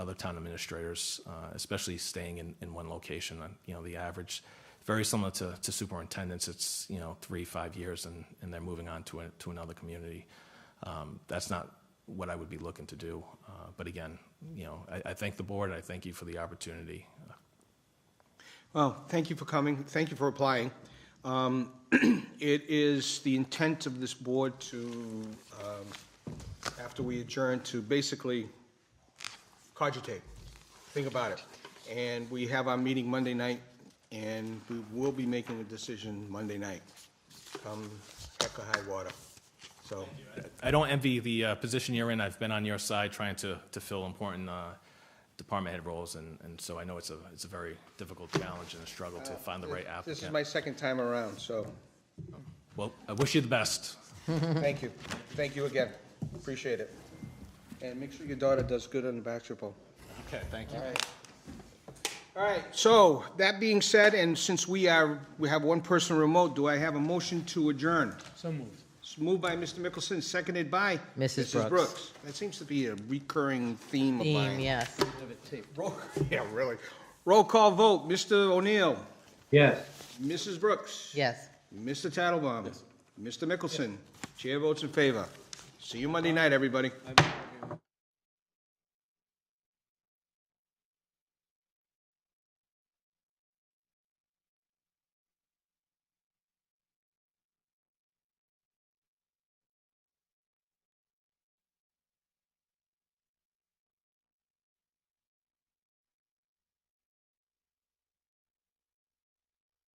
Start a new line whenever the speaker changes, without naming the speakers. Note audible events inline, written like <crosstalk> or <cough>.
other town administrators, uh, especially staying in, in one location. Uh, You know, the average, very similar to, to superintendents, it's, you know, three, five years and, and they're moving on to, a- to another community. Um, That's not what I would be looking to do. Uh, But again, you know, I, I thank the board, I thank you for the opportunity.
Well, thank you for coming, thank you for applying. Um, <clears throat> It is the intent of this board to, um, after we adjourn, to basically cogitate, think about it. And we have our meeting Monday night, and we will be making a decision Monday night, come heck or high water. So,
I don't envy the uh, position you're in. I've been on your side trying to, to fill important uh, department head roles, and, and so I know it's a, it's a very difficult challenge and a struggle to find the right
this is
applicant.
my second time around, so,
Well, I wish you the best.
thank you. Thank you again, appreciate it. And make sure your daughter does good on the basketball.
Okay, thank you.
All right, so, that being said, and since we are, we have one person remote, do I have a motion to adjourn? So moved. It's moved by Mr. Mickelson, seconded by?
Mrs. Brooks.
That seems to be a recurring theme of
Theme,
mine.
yes.
Roll- <laughs> Yeah, really. Roll call vote, Mr. O'Neill,
Yes.
Mrs. Brooks.
Yes.
Mr. Tattlebaum. Mr. Mickelson. Chair votes in favor. See you Monday night, everybody.